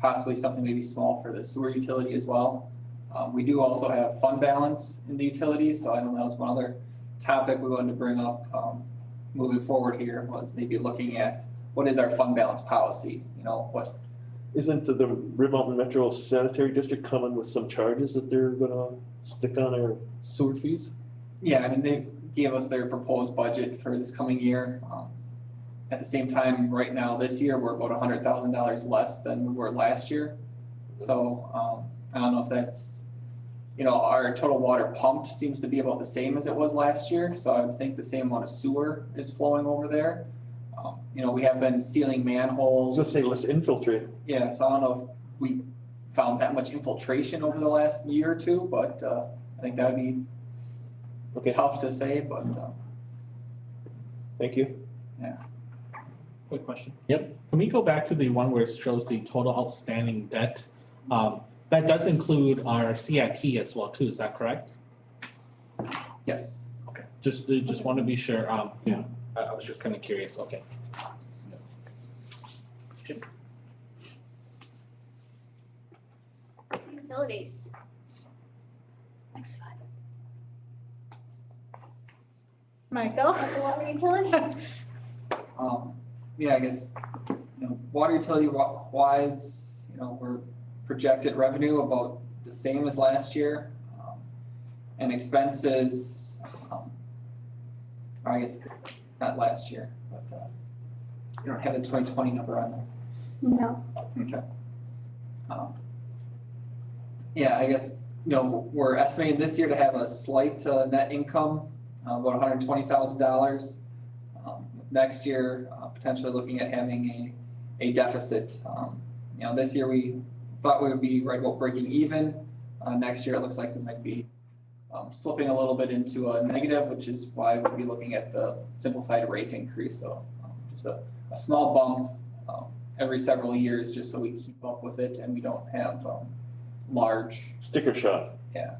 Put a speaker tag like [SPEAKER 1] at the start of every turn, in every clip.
[SPEAKER 1] possibly something maybe small for the sewer utility as well. Um, we do also have fund balance in the utilities, so I know that was one other topic we wanted to bring up, um, moving forward here was maybe looking at what is our fund balance policy, you know, what,
[SPEAKER 2] Isn't the Rib Mountain Metro Sanitary District coming with some charges that they're gonna stick on our sewer fees?
[SPEAKER 1] yeah, I mean, they gave us their proposed budget for this coming year. Um, At the same time, right now, this year, we're about hundred thousand dollars less than we were last year. So, um, I don't know if that's, you know, our total water pumped seems to be about the same as it was last year, so I would think the same amount of sewer is flowing over there. Um, You know, we have been sealing
[SPEAKER 2] I was
[SPEAKER 1] manholes.
[SPEAKER 2] gonna say, let's infiltrate.
[SPEAKER 1] Yeah, so I don't know if we found that much infiltration over the last year or two, but uh I think that'd be
[SPEAKER 2] Okay,
[SPEAKER 1] tough to say, but uh
[SPEAKER 2] thank you.
[SPEAKER 3] Quick question.
[SPEAKER 4] Yep.
[SPEAKER 3] Can we go back to the one where it shows the total outstanding debt? Um, that does include our CIP as well too, is that correct?
[SPEAKER 1] yes.
[SPEAKER 3] Okay. Just, uh, just want to be sure, um. Yeah. I, I was just kind of curious, okay.
[SPEAKER 5] Utilities. Next slide. Michael, the water utility?
[SPEAKER 1] Um yeah, I guess, you know, water utility wa- wise, you know, we're projected revenue about the same as last year. um, And expenses, um, or I guess not last year, but uh you don't have the twenty twenty number on there.
[SPEAKER 5] No.
[SPEAKER 1] Okay. Um, Yeah, I guess, you know, we're estimating this year to have a slight uh, net income, uh, about hundred and twenty thousand dollars. Um, Next year, uh, potentially looking at having a, a deficit. Um, You know, this year we thought we would be right about breaking even. Uh, Next year, it looks like we might be um, slipping a little bit into a negative, which is why we'll be looking at the simplified rate increase. So um, just a, a small bump um, every several years just so we keep up with it and we don't have um large,
[SPEAKER 2] Sticker shot.
[SPEAKER 1] Yeah.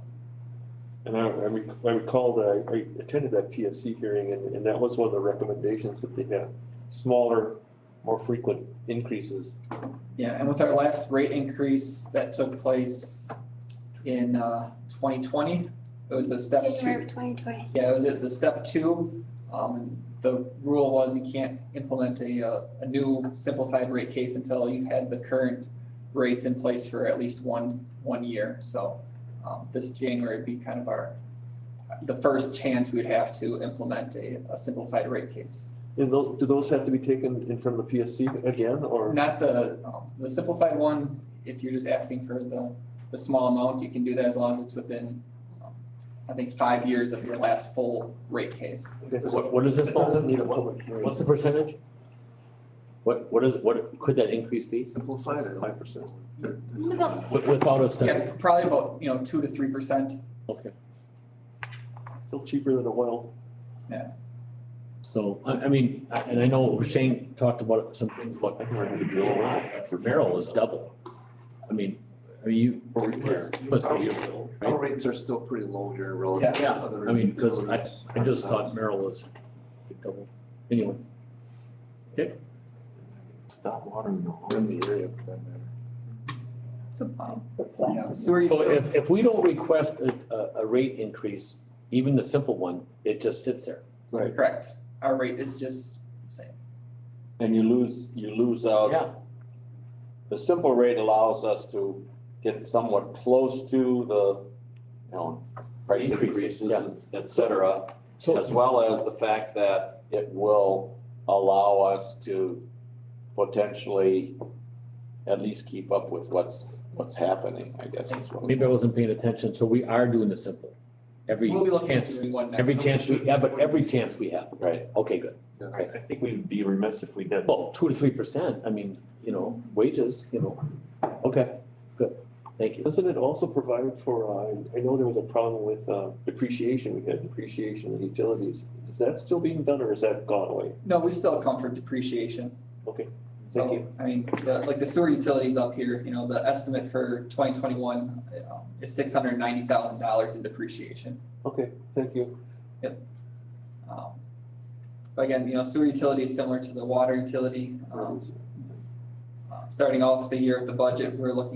[SPEAKER 2] And I, I rec- I recall that I- I attended that PSC hearing and, and that was one of the recommendations that they had. Smaller, more frequent increases.
[SPEAKER 1] yeah, and with our last rate increase that took place in uh twenty twenty, it was the step
[SPEAKER 5] January
[SPEAKER 1] two.
[SPEAKER 5] of twenty twenty.
[SPEAKER 1] Yeah, it was at the step two, um and the rule was you can't implement a uh, a new simplified rate case until you've had the current rates in place for at least one one year, so um this January would be kind of our the first chance we'd have to implement a a simplified rate case.
[SPEAKER 2] And tho- do those have to be taken in front of the PSC again or?
[SPEAKER 1] Not the, um, the simplified one, if you're just asking for the, the small amount, you can do that as long as it's within, um, I think, five years of your last full rate case.
[SPEAKER 2] Okay, so
[SPEAKER 4] What, what is this,
[SPEAKER 6] Doesn't need a
[SPEAKER 4] one?
[SPEAKER 6] public hearing.
[SPEAKER 4] what's the percentage? What, what is, what could that increase be
[SPEAKER 6] Simplified it.
[SPEAKER 2] Five percent.
[SPEAKER 5] About
[SPEAKER 4] Wi- without a study?
[SPEAKER 1] Yeah, probably about, you know, two to three percent.
[SPEAKER 4] Okay,
[SPEAKER 2] Still cheaper than oil.
[SPEAKER 4] so, I, I mean, I- and I know Shane talked about some things, but for Merrill is double. I mean, are you?
[SPEAKER 6] Or repair.
[SPEAKER 4] Must be-
[SPEAKER 6] Our rates are still pretty low here relative to
[SPEAKER 4] Yeah.
[SPEAKER 6] other.
[SPEAKER 4] I mean, 'cause
[SPEAKER 6] utilities.
[SPEAKER 4] I just thought Merrill was double, anyway.
[SPEAKER 6] Stop watering the horn in the area for that matter.
[SPEAKER 1] Um, yeah, Sewer,
[SPEAKER 4] So
[SPEAKER 1] utility-
[SPEAKER 4] if, if we don't request a, a, a rate increase, even the simple one, it just sits there.
[SPEAKER 1] correct, our rate is just the same.
[SPEAKER 7] And you lose, you lose out,
[SPEAKER 4] Yeah.
[SPEAKER 7] the simple rate allows us to get somewhat close to the, you know, price
[SPEAKER 4] Increases,
[SPEAKER 7] increases, et- et cetera. As
[SPEAKER 4] So,
[SPEAKER 7] well as the fact that it will allow us to potentially at least keep up with what's, what's happening, I guess is what.
[SPEAKER 4] maybe I wasn't paying attention, so we are doing the simple. Every
[SPEAKER 1] We'll be looking at
[SPEAKER 4] chance,
[SPEAKER 1] doing one next.
[SPEAKER 4] every chance we, yeah, but every chance we have.
[SPEAKER 7] Right.
[SPEAKER 4] Okay, good.
[SPEAKER 2] I, I think we'd be remiss if we didn't.
[SPEAKER 4] Well, two to three percent, I mean, you know, wages, you know, okay, good, thank you.
[SPEAKER 2] Doesn't it also provide for, uh, I know there was a problem with uh, depreciation, we had depreciation in utilities. Is that still being done or is that gone away?
[SPEAKER 1] No, we still come for depreciation.
[SPEAKER 2] Okay, thank
[SPEAKER 1] So,
[SPEAKER 2] you.
[SPEAKER 1] I mean, the, like the sewer utilities up here, you know, the estimate for twenty twenty-one um, is six hundred ninety thousand dollars in depreciation.
[SPEAKER 2] Okay, thank you.
[SPEAKER 1] Um, Um, But again, you know, sewer utility is similar to the water utility. Um, uh, starting off the year with the budget, we're looking